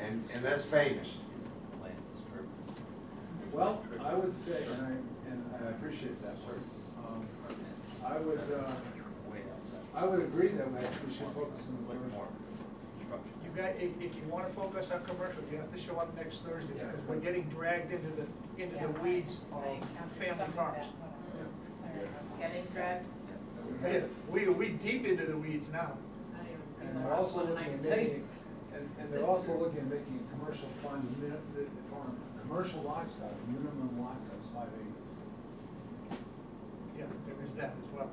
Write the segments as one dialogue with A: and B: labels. A: and, and that's famous.
B: Well, I would say, and I, and I appreciate that, sir. Um, I would, uh, I would agree that we- we should focus on the commercial.
C: You got, if, if you wanna focus on commercial, you have to show up next Thursday,
B: Yeah.
C: because we're getting dragged into the, into the weeds of family farms.
D: Getting dragged.
C: Hey, We, we deep into the weeds now.
B: And they're also looking at making, and, and they're also looking at making commercial fund, min- the, the farm, commercial lot size, minimum lot size five acres.
C: Yeah, there is that as well.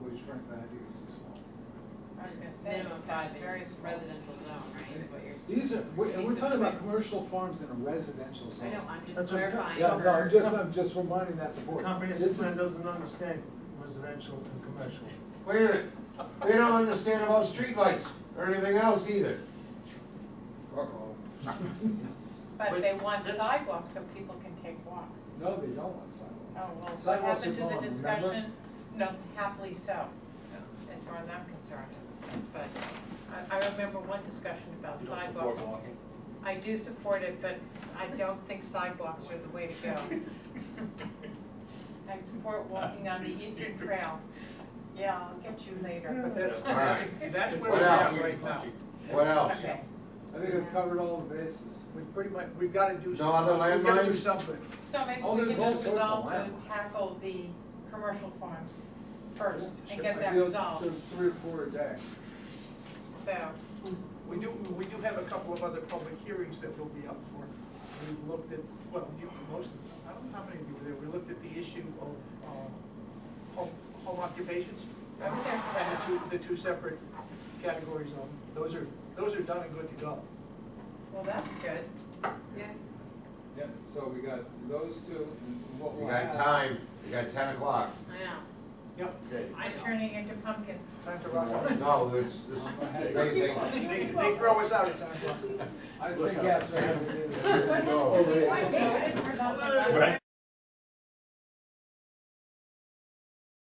B: Which frankly, I think is too small.
D: I was gonna say, minimum five, very residential zone, right, is what you're.
B: These are, we- and we're
D: these
B: talking about
D: describe-
B: commercial farms in a residential
D: I
B: zone.
D: know, I'm just
E: That's what I'm
D: clarifying.
B: Yeah, no, I'm
D: for-
B: just, I'm just reminding that the board.
E: Comprehensive
B: This
E: plan
B: is-
E: doesn't understand residential and commercial.
A: Wait a minute, they don't understand about streetlights or anything else either. Uh-oh.
D: But
C: But
D: they want
C: that's-
D: sidewalks so people can take walks.
B: No, they don't want
D: Oh,
B: sidewalks.
D: well, what
B: Sidewalks
D: happened
B: are
D: to the
B: gone, remember?
D: discussion? No, happily so, as far as I'm concerned. But I, I remember one discussion about sidewalks. I do support it, but I don't think sidewalks are the way to go. I support walking on the Eastern Trail. Yeah, I'll get you
C: But
D: later.
C: that's, that's, that's where
A: What
C: we're at
A: else?
C: right now.
A: What else?
D: Okay.
B: I think I've covered all the bases.
C: We've pretty much, we've gotta do.
A: No
C: something.
A: other
C: We've gotta do
A: landmines?
C: something.
D: So maybe
B: Oh,
D: we
B: there's
D: can
B: all
D: just
B: sorts of
D: resolve to
B: landmarks.
D: tackle the commercial farms first and
B: Sure.
D: get that
B: There's-
D: resolved,
B: There's three or four a day.
D: so.
C: We do, we do have a couple of other public hearings that will be up for. We looked at, well, you, most, of- I don't know how many of you were there, we looked at the issue of, um, home, home occupations.
D: I was there for
C: And
D: that.
C: the two, the two separate categories of, them. those are, those are done and good to go.
D: Well, that's good. Yeah.
B: Yeah, so we got those two and what
A: You
B: we'll
A: got
B: have.
A: time, you got ten o'clock.
D: I know.
C: Yep,
D: I'm turning into pumpkins.
C: time to rock.
A: No, it's,
B: I
A: it's, they,
B: think-
A: they,
C: They, they throw us out at time.
B: I think after having this.
A: no.
D: Wait, wait, wait, we're not-
E: Right.